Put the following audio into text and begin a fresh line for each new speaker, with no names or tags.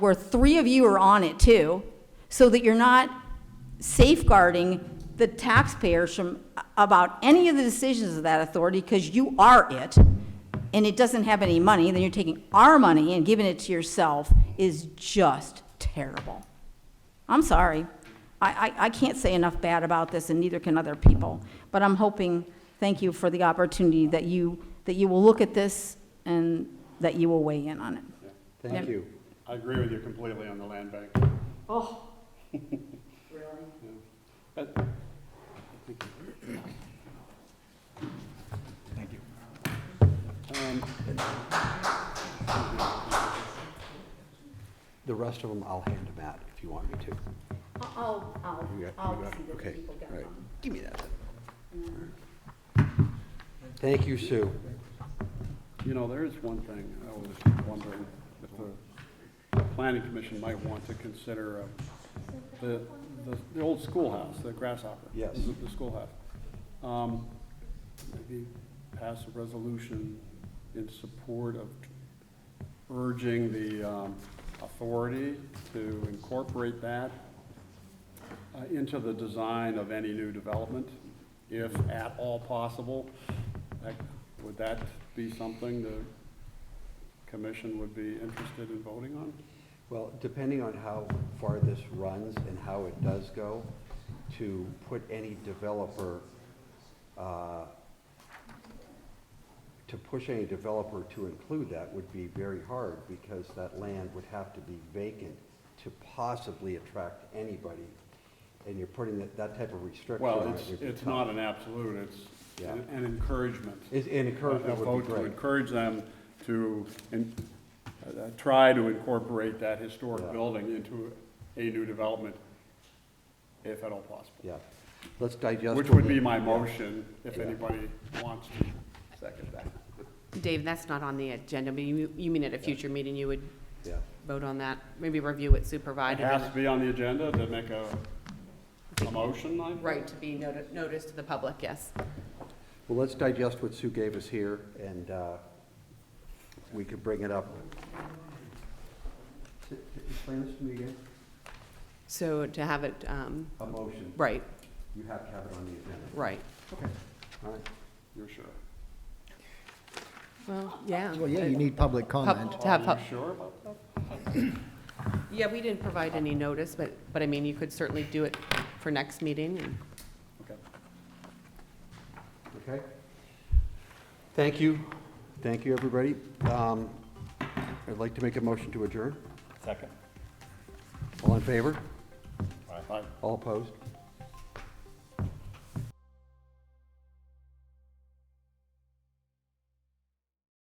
where three of you are on it too, so that you're not safeguarding the taxpayers from, uh, about any of the decisions of that authority, because you are it, and it doesn't have any money, then you're taking our money and giving it to yourself is just terrible. I'm sorry. I, I, I can't say enough bad about this, and neither can other people. But I'm hoping, thank you for the opportunity that you, that you will look at this and that you will weigh in on it.
Thank
Yeah.
you.
I agree with you completely on the land bank.
Oh, really?
But
Thank you. The rest of them, I'll hand them out if you want me to.
I'll, I'll,
You got- you
I'll
got-
see that the
okay,
people get
all right.
them. Mm.
Give me that. then. Thank you, Sue.
You know, there is one thing I was wondering if the planning commission might want to consider uh, the, the- the old schoolhouse, the grasshopper.
Yes.
The the schoolhouse. Um, Maybe pass a resolution in support of urging the um, authority to incorporate that uh, into the design of any new development, if at all possible. That- Would that be something the commission would be interested in voting on?
Well, depending on how far this runs and how it does go, to put any developer, uh, to push any developer to include that would be very hard because that land would have to be vacant to possibly attract anybody. And you're putting that, that type of restriction on it.
Well, it's,
would be
it's
tough.
not an absolute, it's
Yeah.
an an encouragement.
Is- And
A
encouragement would
vote
be
to
great.
encourage them to, in- uh, try to incorporate that historic
Yeah.
building into a new development, if at all possible.
Yeah. Let's digest.
Which
what
would
we-
be my
yeah.
motion, if
Yeah.
anybody wants to second that.
Dave, that's not on the agenda, but you, you mean at a future meeting, you would
Yeah.
vote on that? Maybe review it
It
supervisor?
has to be on the agenda to make a, a motion, I think.
Right, to be noticed, noticed to the public, yes.
Well, let's digest what Sue gave us here, and uh, we could bring it up. S- Explain this to me again.
So to have it, um,
A motion.
right,
You have to have it on the agenda.
right.
Okay. All right.
You're sure?
Well, yeah.
Well, yeah, you need public
Pub-
comment.
To have,
Are
pub-
you sure about that?
yeah, we didn't provide any notice, but, but I mean, you could certainly do it for next meeting. and-
Okay.
Okay. Thank you. Thank you, everybody. Um, I'd like to make a motion to adjourn.
Second.
All in favor?
Aye.
All opposed?